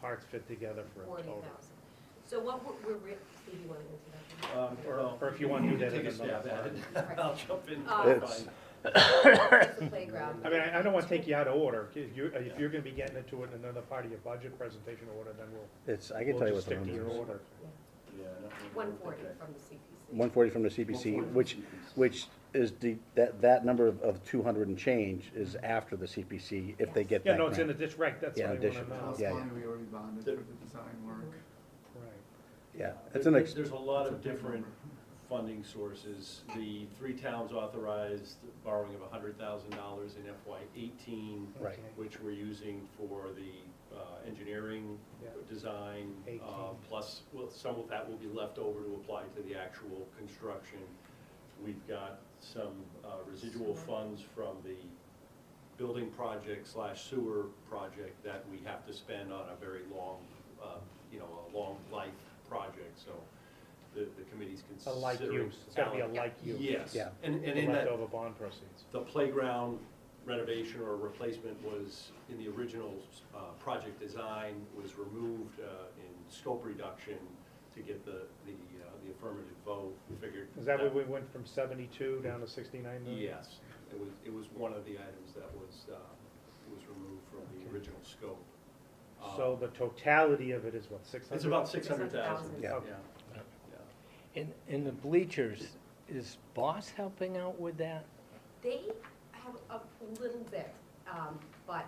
parts fit together for a forty total. thousand. So what we're, we're, re- Steve, you wanna answer that one? Um, Or- well, or if you wanna do can that in Take a another stab at part. it. I'll jump in. Uh, Fine. It's the playground. I mean, I, I don't wanna take you out of order, if you're, if you're gonna be getting into it in another part of your budget presentation order, then we'll, It's, I can tell we'll you just what the stick to your number is. order. Yeah, I don't really One think forty that- from the CPC. One forty from the 140 CPC, from which, CPC. which is the, that, that number of- of two hundred and change is after the CPC, if they get Yeah, that no, it's in grant. the district, right, that's Yeah, what I wanna addition. know. That's Yeah, why we already bonded for the design work. Right. Yeah, There- it's an, There's ex- there's a lot of it's a big different funding sources. The three towns authorized borrowing of hundred thousand dollars in FY eighteen, Right. Okay. which we're using for the uh, engineering, Yeah. design, uh, 18. plus, well, some of that will be left over to apply to the actual construction. We've got some uh, residual Sewer. funds from the building project slash sewer project that we have to spend on a very long, uh, you know, a long life project, so the, the committee's A considering. like use, it's gotta be a like use. Yes, Yeah. and, and The in that, Leftover bond proceeds. the playground renovation or replacement was, in the original uh, project design, was removed uh, in scope reduction to get the, the uh, the affirmative vote figured. Is that where we went from seventy-two down to sixty-nine million? Yes, it was, it was one of the items that was, uh, was removed from the Okay. original scope. Uh, So the totality of it is what, six hundred? It's about six hundred 600,000. thousand. Yeah. In, in the bleachers, is Boss helping out with that? They have a little bit, um, but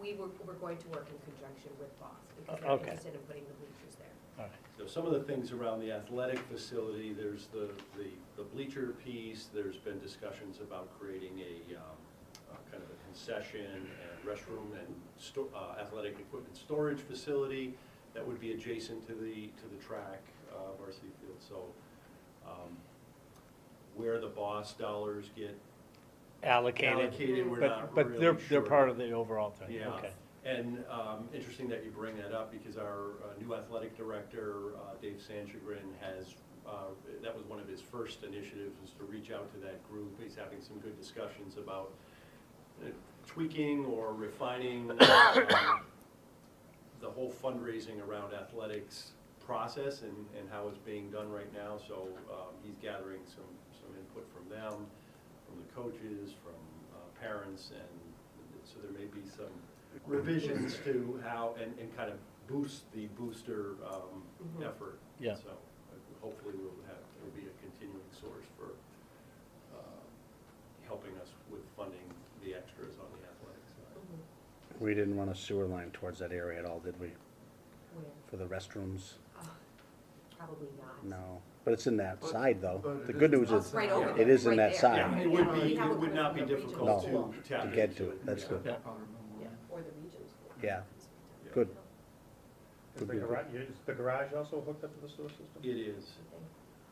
we were, we're going to work in conjunction with Boss because they're Okay. interested in putting the bleachers there. All right. So some of the things around the athletic facility, there's the, the, the bleacher piece, there's been discussions about creating a, um, a kind of a concession and restroom and sto- uh, athletic equipment storage facility that would be adjacent to the, to the track, uh, varsity field, so, um, where the boss dollars get Allocated, allocated, we're but, not but they're, really they're sure. part of the overall thing, Yeah, okay. and um, interesting that you bring that up because our uh, new athletic director, uh, Dave Sanchagrin, has, uh, that was one of his first initiatives was to reach out to that group. He's having some good discussions about uh, tweaking or refining uh, the whole fundraising around athletics process and, and how it's being done right now. So um, he's gathering some, some input from them, from the coaches, from uh, parents, and so there may be some revisions to how, and, and kind of boost the booster um, Mhm. effort. Yeah. So uh, hopefully we'll have, it'll be a continuing source for uh, helping us with funding the extras on the athletic side. Mhm. we didn't run a sewer line towards that area at all, did we? Where? For the restrooms? Uh, Probably not. No. But it's in that But- side, though. but The it good is news Oh, is, it's right over Yeah. there, it is in right that there. side. Yeah, it would be, We have it would one not be from the difficult regional to school. tap To into. get to it, that's Yeah. good. Yeah. Powder mill Yeah, one. or the regions. Yeah. Yeah. Good. Is the garage, is the garage also hooked up to the sewer system? It is.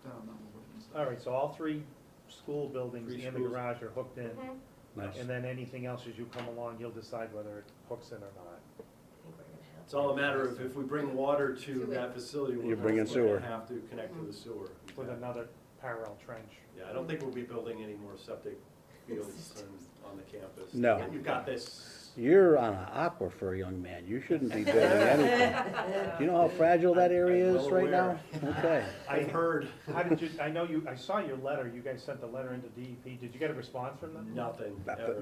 Down on the wooden side. All right, so all three school buildings Three and the schools. garage are hooked in, Mhm. nice. and then anything else as you come along, you'll decide whether it hooks in or not. I think we're gonna have- It's all a matter of if we bring water to that facility, You we're bring in going to sewer. have to connect Mm-hmm. to the sewer. with another parallel trench. Yeah, I don't think we'll be building any more septic fields on- on the campus. No. You've got this. You're on an aquifer, young man. You shouldn't be building anything. Do you know how fragile that area I'm is right now? well Okay. I I've heard How did you, I know you, I saw your letter, you guys sent the letter into DEP, did you get a response from them? nothing Nothing. ever.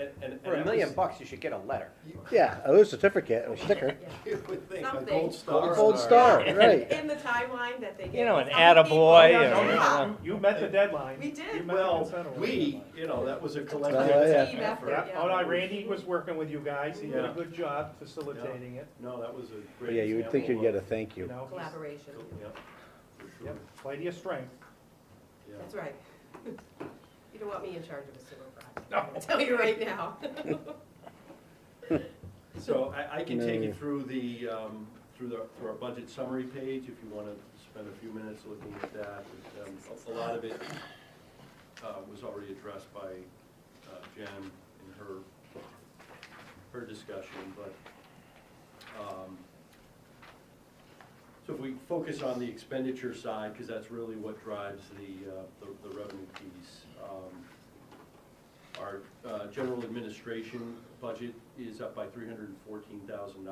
And- and- and For a that million was- bucks, you should get a letter. Yeah, a little certificate or sticker. You would think a Something. gold star. Gold star, right. In the timeline that they gave. You know, an us, how many people- Oh, attaboy Yeah, or, no, you know. You you met the deadline. We did. You met the consent uh, Well, order we, deadline. you know, that was a Oh, yeah. collective Team effort. effort, Yeah, oh, yeah. no, Randy was working with you guys, he did a Yeah. good job facilitating it, No, that was a But great. Yeah, you would think you'd example get a of- thank you you. know? he's- Collaboration, Yeah, for sure. Yep, plenty of strength. Yeah. that's right. You don't want me in charge of a sewer project, I'll tell you right now. So I, I can take you No. through the, um, through the, through our budget summary page, if you wanna spend a few minutes looking at that. Um, A a lot of it, uh, was already addressed by, uh, Jen in her, her discussion, but, um, so if we focus on the expenditure side, cause that's really what drives the, uh, the, the revenue piece. Um, our uh, general administration budget is up by three hundred and fourteen thousand dollars.